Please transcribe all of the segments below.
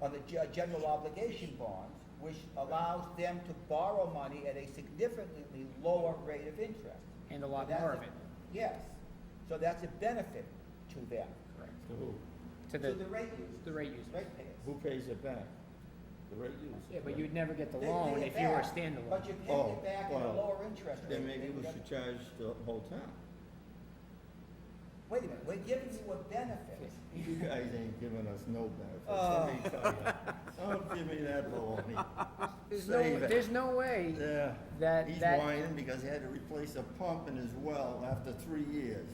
on the ge- general obligation bonds, which allows them to borrow money at a significantly lower rate of interest. And a lot That's more of it. Yes, so that's a benefit to them, Correct. To who? To to the the, rate users. the rate users. Rate payers. Who pays it back? The rate users. Yeah, but you'd never get the They pay loan it if you were a back, But standalone. you pay Oh, it back at a well, lower interest rate. Then maybe than we the- should charge the whole town. Wait a minute, we're giving you a benefit. You guys ain't giving us no Oh. benefits, let me tell you. Don't give me that baloney. There's no, Save it. there's no way Yeah. that, He's that, whining because he had to replace a pump in his well after three years.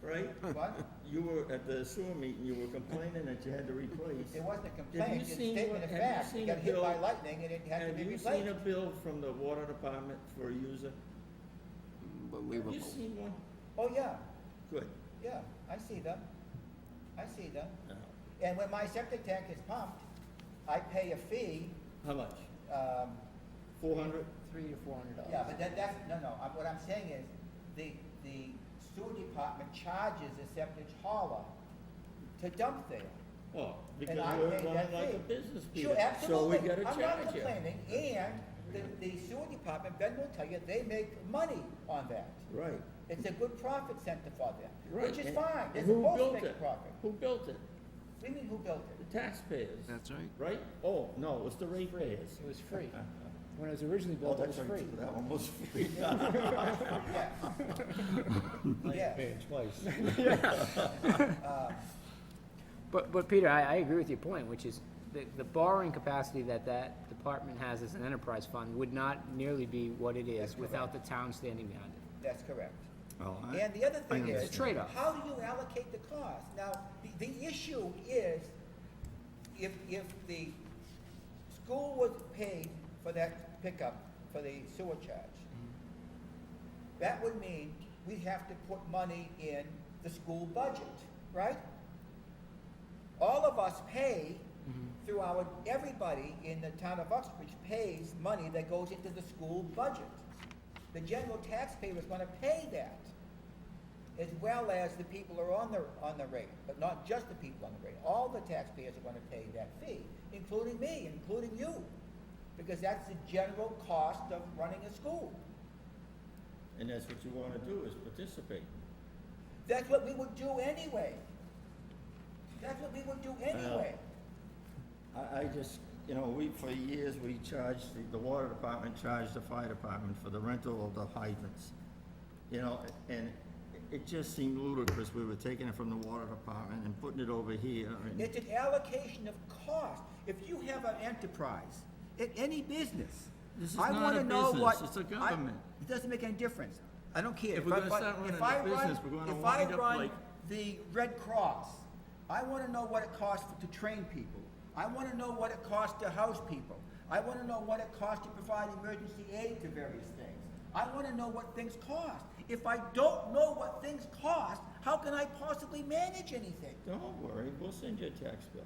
Right? What? You were, at the sewer meeting, you were complaining that you had to replace. It wasn't a you complaint, it's a seen statement of what- have you fact. It seen got a hit by bill- lightning and it had to Have be you seen a replaced. bill from the water department for a user? Have Unbelievable. you seen one? Oh, yeah, Good. yeah, I see them. I see them. Now, And when my septic tank is pumped, I pay a fee, How much? um, Four hundred? three to four hundred yeah, dollars. but that, that's, no, no, I'm- what I'm saying is, the, the sewer department charges the septic hauler to dump there. Oh, because And I you're paid running that like fee. a business, Sure, Peter. absolutely. So we gotta charge I'm you. not complaining, and the, the sewer department, Ben will tell you, they make money on that. Right. It's a good profit center for them, Right. which is And- fine, they're and who supposed to built make a it? profit. Who built it? We mean, who built it? The taxpayers. That's right. Right? Oh, no, it was the ratepayers. It was free. When it was originally Oh, built, it that's was right, free. too, that one was free. Yes. Yes, But, but Peter, I, I agree with your point, which is the, the borrowing capacity that that department has as an enterprise fund would not nearly be what it That's is without the town standing behind it. that's correct. Oh, I- And the other thing understand. is. It's a trade-off. How do you allocate the cost? Now, the, the issue is, if, if the school was paid for that pickup, for the sewer charge, Mm-hmm. that would mean we'd have to put money in the school budget, right? All of us pay Mm-hmm. through our, everybody in the town of Uxbridge pays money that goes into the school budget. The general taxpayer is gonna pay that, as well as the people who are on the, on the rate, but not just the people on the rate. All the taxpayers are gonna pay that fee, including me, including you, because that's the general cost of running a school. And that's what you wanna do, is participate. That's what we would do anyway. That's what we would do anyway. I, I just, you know, we, for years, we charged, the- the water department charged the fire department for the rental of the hydrants. You know, and it- it just seemed ludicrous, we were taking it from the water department and putting it over here, and, It's an allocation of cost. If you have an enterprise, in any business, This is I not wanna a know business, what. it's a I- government. It doesn't make any difference. I don't care. If we're I- gonna but start running if a I run- business, we're gonna if I wind up run like- The Red Cross, I wanna know what it costs to train people. I wanna know what it costs to house people. I wanna know what it costs to provide emergency aid to various things. I wanna know what things cost. If I don't know what things cost, how can I possibly manage anything? don't worry, we'll send you a tax bill.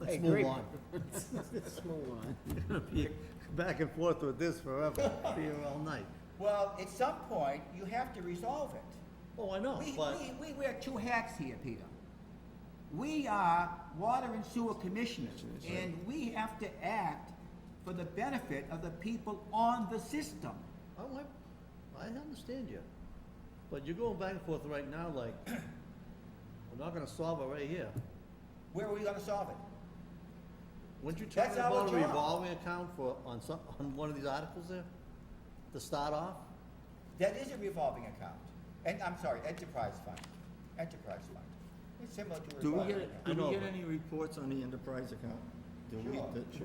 I Let's agree. move on. Let's move on. It's gonna be Back and forth with this forever, be here all night. Well, at some point, you have to resolve it. Oh, I know, We, but we, we wear two hats here, Peter. We are water and sewer commissioners, and we have to act for the benefit of the people on the system. I like, I understand you. But you're going back and forth right now like, we're not gonna solve it right here. Where are we gonna solve it? Weren't you That's talking our about a job. revolving account for, on some, on one of these articles there? To start off? That is a revolving account, and, I'm sorry, enterprise fund, enterprise fund. It's similar to a Do we revolving get, account. do I know, we get but- any reports on the enterprise account? Do we, Sure. the-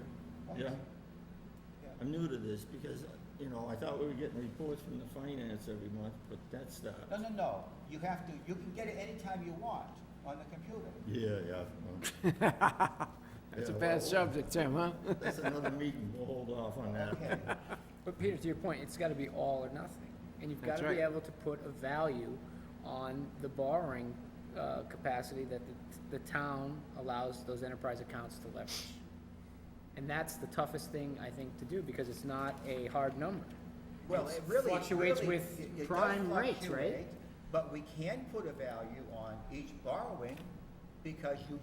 Yeah, Yeah. I'm new to this because, you know, I thought we were getting reports from the finance every month, but that's not. No, no, no, you have to, you can get it anytime you want on the computer. Yeah, yeah. It's a bad subject, Tim, huh? That's another meeting, we'll hold off on that. Okay, But Peter, to your point, it's gotta be all or nothing. And you've That's gotta be right. able to put a value on the borrowing, uh, capacity that the, the town allows those enterprise accounts to leverage. And that's the toughest thing, I think, to do, because it's not a hard number. Well, It's it really. fluctuates really- with it- it does prime rates, right? fluctuate, But we can put a value on each borrowing because you